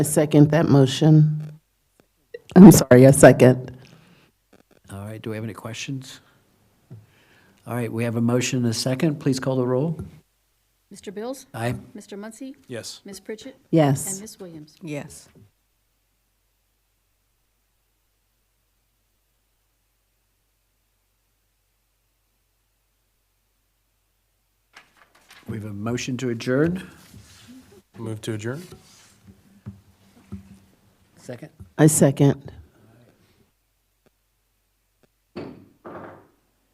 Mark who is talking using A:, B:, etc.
A: I second that motion. I'm sorry, I second.
B: All right, do we have any questions? All right, we have a motion and a second. Please call the roll.
C: Mr. Bills?
B: Aye.
C: Mr. Muncy?
D: Yes.
C: Ms. Pritchett? And
A: Yes.
C: Ms. Williams?
E: Yes.
B: We have a motion to adjourn.
D: Move to adjourn?
B: Second.
A: I second.